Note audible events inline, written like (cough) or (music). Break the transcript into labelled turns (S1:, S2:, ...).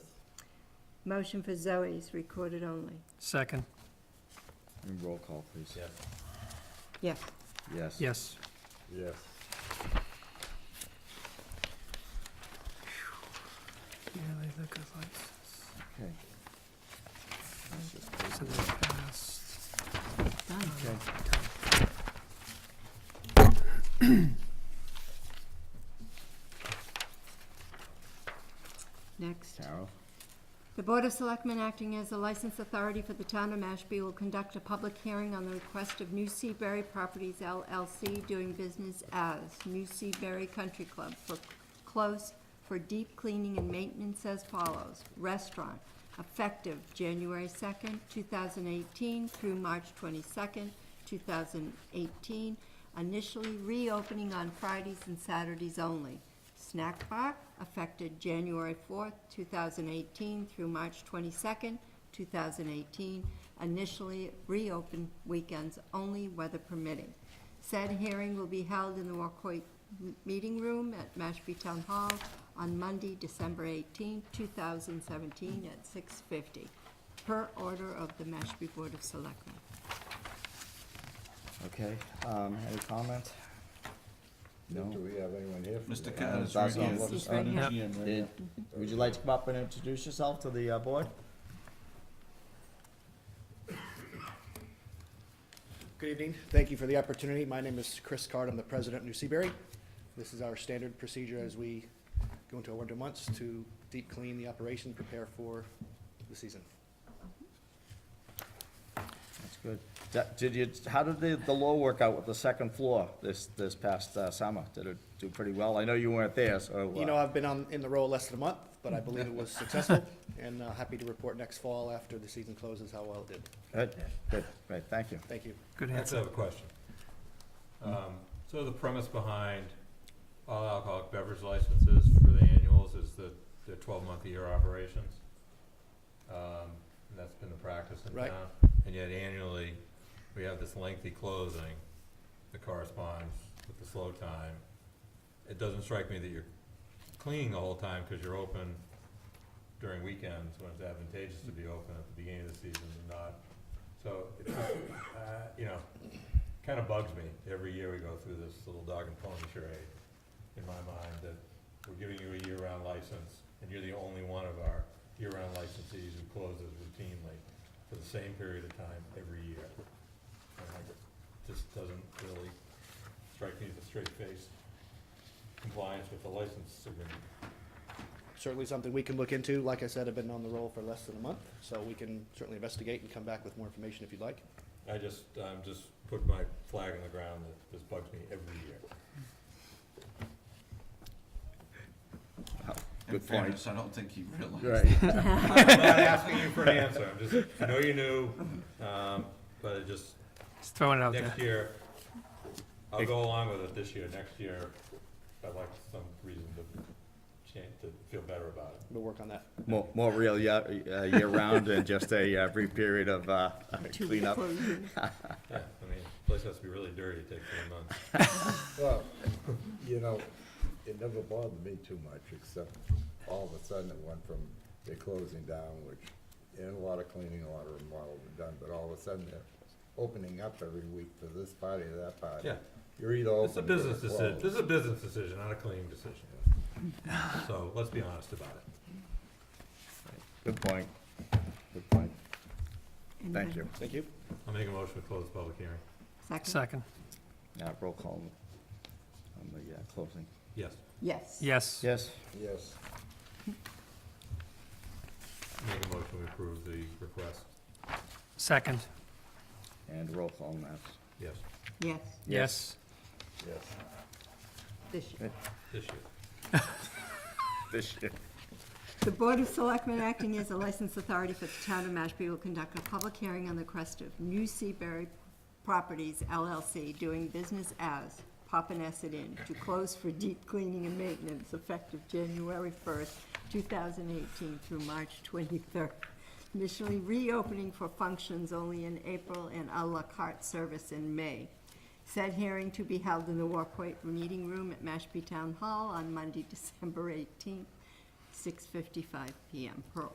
S1: Motion for Zoe's recorded only.
S2: Second,
S3: And roll call, please.
S4: Yes.
S1: Yes.
S3: Yes.
S2: yes.
S4: Yes.
S2: Yeah, they look like,
S3: Okay. That's just-
S2: so they passed.
S3: Okay.
S1: Next.
S3: Carol?
S1: The Board of Selectmen, acting as the license authority for the town of Mashpee, will conduct a public hearing on the request of New Seaberry Properties LLC doing business as New Seaberry Country Club for close for deep cleaning and maintenance as follows. Restaurant, effective January second, two thousand eighteen through March twenty-second, two thousand eighteen, initially reopening on Fridays and Saturdays only. Snack bar, affected January 4th, 2018 through March 22nd, 2018, initially reopened weekends only, weather permitting. Said hearing will be held in the Wacoit m- Meeting Room at Mashpee Town Hall on Monday, December 18, 2017, at 6:50, per order of the Mashpee Board of Selectmen.
S3: Okay, um, any comment?
S4: Do
S3: No?
S4: we have anyone here? from
S5: Mr.
S4: the-
S5: Khan is
S3: Uh,
S5: right
S3: that's not
S5: here.
S3: what-
S1: He's right here.
S5: Yeah, right
S3: Did-
S5: here.
S3: Would you like to come up and introduce yourself to the uh, board?
S6: Good evening. Thank you for the opportunity. My name is Chris Card. I'm the president of New Seaberry. This is our standard procedure as we go into our winter months to deep clean the operation, prepare for the season.
S3: That's good. That- Did you, how did the, the law work out with the second floor this, this past uh, summer? Did it do pretty well? I know you weren't there, so. uh,
S6: You know, I've been on, in the role less than a month, but I believe it was successful, and uh, happy to report next fall after the season closes how well it did.
S3: Good, good, great, thank you.
S6: Thank you.
S2: Good
S4: I actually
S2: answer.
S4: have a question.
S3: Hmm.
S4: Um, So the premise behind all alcoholic beverage licenses for the annuals is the, the twelve-month year operations. Um, And that's been the practice in
S6: Right.
S4: town. And yet annually, we have this lengthy closing that corresponds with the slow time. It doesn't strike me that you're cleaning the whole time because you're open during weekends when it's advantageous to be open at the beginning of the season and not. So, it's just, uh, you know, kind of bugs me every year we go through this little dog and pony charade in my mind that we're giving you a year-round license and you're the only one of our year-round licensees who closes routinely for the same period of time every year. And I- This doesn't really strike me as a straight face compliance with the license agreement.
S6: Certainly something we can look into. Like I said, I've been on the role for less than a month, so we can certainly investigate and come back with more information if you'd like.
S4: I just, I'm just put my flag on the ground that this bugs me every year.
S5: In
S3: Good point.
S5: fairness, I don't think he realized.
S3: Right.
S4: I'm not asking you for an answer, I'm just, I know you knew, um, but it just,
S2: Just throwing it out there.
S4: next year, I'll go along with it this year, next year, I'd like some reason to change, to feel better about it.
S6: We'll work on that.
S3: More, more real year, uh, year-round and just a uh, brief period of uh,
S1: Two
S3: cleanup.
S1: closing.
S4: Yeah, I mean, place has to be really dirty to take three months.
S7: Well, (laughs) you know, it never bothered me too much, except all of a sudden it went from they're closing down, which, and a lot of cleaning, a lot of remodel were done, but all of a sudden they're opening up every week for this party, or that party.
S4: Yeah.
S7: You're either
S4: It's a
S7: open or you're
S4: business decision, this
S7: closed.
S4: is a business decision, not a cleaning decision. So, let's be honest about it.
S3: Good point, good point.
S1: And
S3: (laughs) Thank
S1: I-
S3: you.
S6: Thank you.
S4: I'll make a motion to close the public hearing.
S1: Second?
S2: Second,
S3: Yeah, roll call on the uh, closing.
S4: Yes,
S1: Yes.
S2: yes.
S3: Yes.
S7: Yes,
S4: make a motion to approve the request.
S2: Second,
S3: And roll call on that.
S4: Yes,
S1: Yes,
S2: yes.
S7: yes.
S1: this year.
S4: this year.
S3: This year.
S1: The Board of Selectmen, acting as a license authority for the town of Mashpee, will conduct a public hearing on the request of New Seaberry Properties LLC, doing business as Papaneset Inn, to close for deep cleaning and maintenance effective January first, two thousand eighteen through March twenty-third. Initially reopening for functions only in April and à la carte service in May. Said hearing to be held in the Warpoint Meeting Room at Mashpee Town Hall on Monday, December eighteenth, 6:55 PM per